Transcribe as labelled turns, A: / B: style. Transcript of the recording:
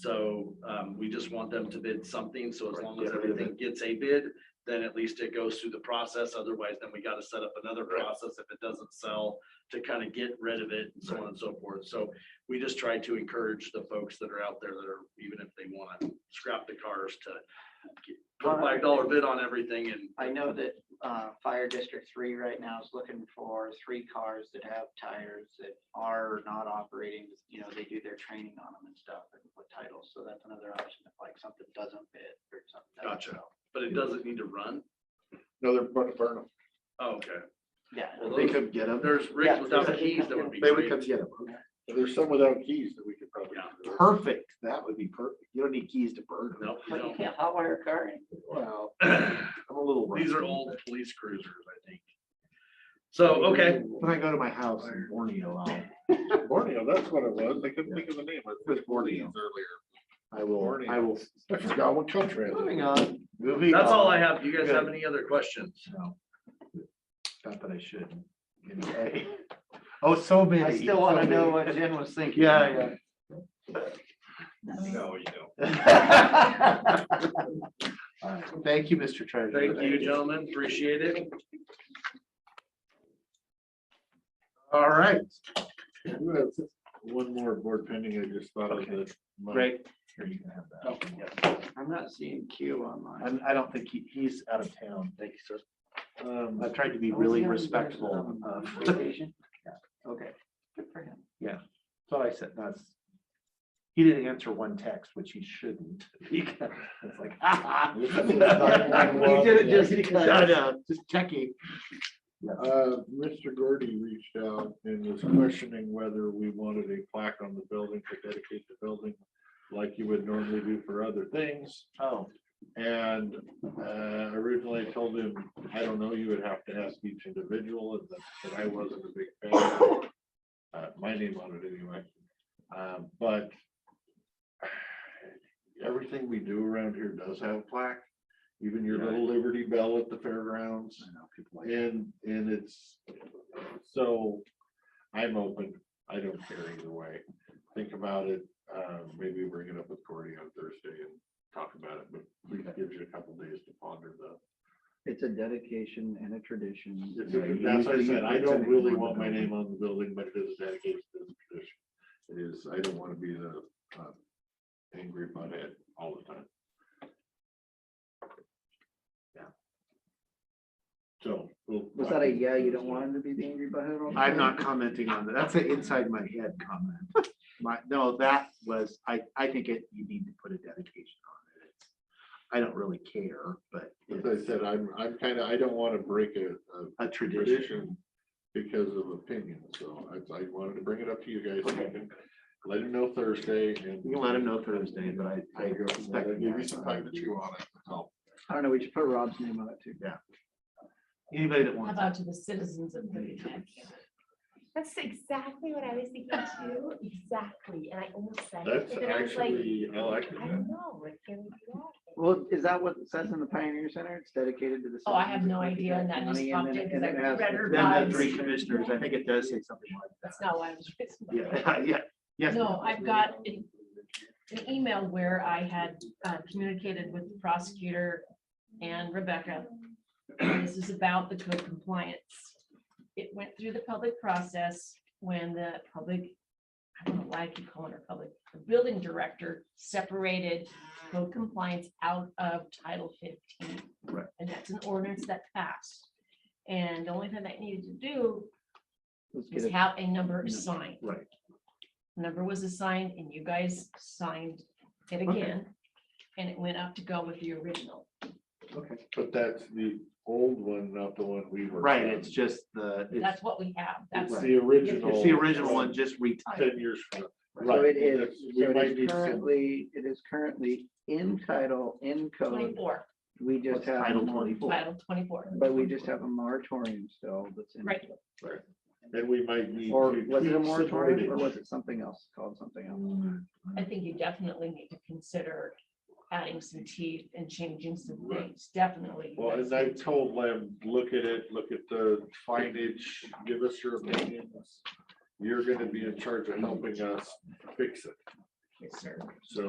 A: So um, we just want them to bid something, so as
B: Right,
A: long as
B: get it in.
A: everything gets a bid, then at least it goes through the process, otherwise then we gotta set up another
B: Right.
A: process if it doesn't sell to kind of get rid of it and so on and so forth. So we just try to encourage the folks that are out there that are, even if they want to scrap the cars to get- put a five dollar bid on everything and
C: I know that uh, Fire District Three right now is looking for three cars that have tires that are not operating. You know, they do their training on them and stuff and put titles. So that's another option if like something doesn't fit or something. doesn't
A: Gotcha.
C: sell.
A: but it doesn't need to run. Oh,
B: No, they're going to burn them.
A: Okay,
C: Yeah,
A: Well,
B: They
A: those-
B: could get them.
A: there's rigs
C: Yeah.
A: without keys that would be
B: They would
A: great.
B: come get them. There's some without keys that we could probably.
A: Yeah.
B: Perfect. That would be perfect. You don't need keys to burn them.
A: No, you
C: but you
A: don't.
C: can't hotwire a car. in.
B: Well, I'm a little.
A: These are
B: rusty.
A: old police cruisers, I think. So, okay,
B: When I go to my house in Borneo, I'll-
D: Borneo, that's what it was. I couldn't think of the name. I
B: was
D: was
B: Borneo.
D: Borneo earlier.
B: I will, I
D: Borneo.
B: will.
D: I forgot what country.
C: Moving on.
B: Moving
A: that's all I
B: on.
A: have. Do you guys have any other questions?
B: No. Not that I should. anyway. Oh, so many.
C: I still want
B: so
C: to know
B: many.
C: what Jen was thinking.
B: Yeah,
A: No, you don't.
B: yeah. All right. Thank you, Mr. Treasurer.
A: Thank you, gentlemen. Appreciate it.
B: All right,
D: One more board pending. I just thought of
B: Okay.
D: this. Mike.
B: great. Here, you can have that.
C: I'm not seeing Q online.
B: Oh, I'm- I don't think he, he's out of town. Thank you, sir.
D: Um,
B: I tried to be
C: Oh,
B: really
C: yeah, he was
B: respectful
C: on
B: of,
C: vacation. Okay. Good for him.
B: so I said, that's. He didn't answer one text, which he shouldn't. He kind of- It's like, ah.
D: this is not one.
B: He did it just because. I know, just checking.
D: Uh, Mr. Gordy reached out and was questioning whether we wanted a plaque on the building to dedicate the building like you would normally do for other things.
B: Oh,
D: And uh, originally I told him, I don't know, you would have to ask each individual, and that- that I wasn't a big fan. of it. Uh, My name on it anyway, Uh, but everything we do around here does have plaque, even your little Liberty Bell at the fairgrounds.
B: I know, people like,
D: And, and it's, so I'm open. I don't care either way. Think about it. Uh, maybe bring it up with Cordy on Thursday and talk about it, but we can give you a couple days to ponder the.
E: It's a dedication and a tradition.
D: It's-
E: Yeah, you-
D: That's what I
E: you-
D: said. I
E: it's
D: don't
E: an
D: really
E: important
D: want my
E: building.
D: name on the building, but it is dedicated to the tradition. It is, I don't want to be the, uh, angry butthead all the time.
B: Yeah.
D: So. we'll-
E: Was that a, yeah, you don't want him to be the angry butthead? all the
B: I'm
E: time?
B: not commenting on that. That's an inside my head comment. My, no, that was, I, I think it, you need to put a dedication on it. It's- I don't really care, but
D: As I
B: it's
D: said, I'm, I'm kind of, I don't want to break a, a
B: a tradition.
D: tradition because of opinion, so I, I wanted to bring it up to you guys. You can Let him know Thursday and.
B: You can let him know Thursday, but I, I
D: There you go.
B: respect
D: Give you some time to
B: that.
D: chew on it. Oh,
E: I don't know, we should put Rob's name on it too.
B: Anybody that
F: How
B: wants.
F: about to the citizens of Boone
G: That's exactly what I was thinking too, exactly, and I almost said it,
D: That's
G: and then I was like,
D: actually, I like
G: I
D: that.
G: don't know, it can we do that?
E: Well, is that what it says in the Pioneer Center? It's dedicated to the.
F: Oh, I have
E: citizens
F: no
E: of
F: idea, and
E: Lincoln
F: that
E: County,
F: just popped
E: and then- and
F: in 'cause I
E: then it has
F: read
E: the-
F: her
B: Then the
F: Right.
B: three commissioners, I think it does say something like
F: That's not why I was.
B: that. Yeah, yeah, yes.
F: No, I've got an an email where I had uh, communicated with the prosecutor and Rebecca. And This is about the code compliance. It went through the public process when the public, I don't know why I keep calling her public, the building director separated code compliance out of Title fifteen.
B: Right.
F: And that's an ordinance that passed. And the only thing that needed to do
E: Let's get
F: is
E: it.
F: have a number assigned
B: Right,
F: number was assigned and you guys signed it
B: Okay.
F: again. And it went up to go with the original.
B: okay.
D: But that's the old one, not the one we were.
B: Right, it's just the, it's,
F: That's what we have. That's,
D: It's the original.
B: it's the original one, just retitled.
D: Ten years from now.
E: So it
D: Right,
E: is,
D: that's- we
E: so
D: might
E: it
D: need
E: is
D: some-
E: currently, it is currently in title, in
C: uh,
E: code.
F: twenty-four,
E: We just
B: What's
E: have. a
B: Title
E: mor-
B: 24?
F: title twenty-four.
E: But we just have a moratorium still that's in.
F: Right.
D: And we might need.
E: Or
D: to
E: was it
D: tweak
E: a
D: some
E: moratorium or
D: wording.
E: was it something else called something else?
F: I think you definitely need to consider adding some teeth and changing some
D: Right.
F: things, definitely.
D: Well,
F: That's-
D: as I told them, look at it, look at the signage, give us your opinions. You're gonna be in charge of helping us fix it,
F: Yes, sir.
D: so.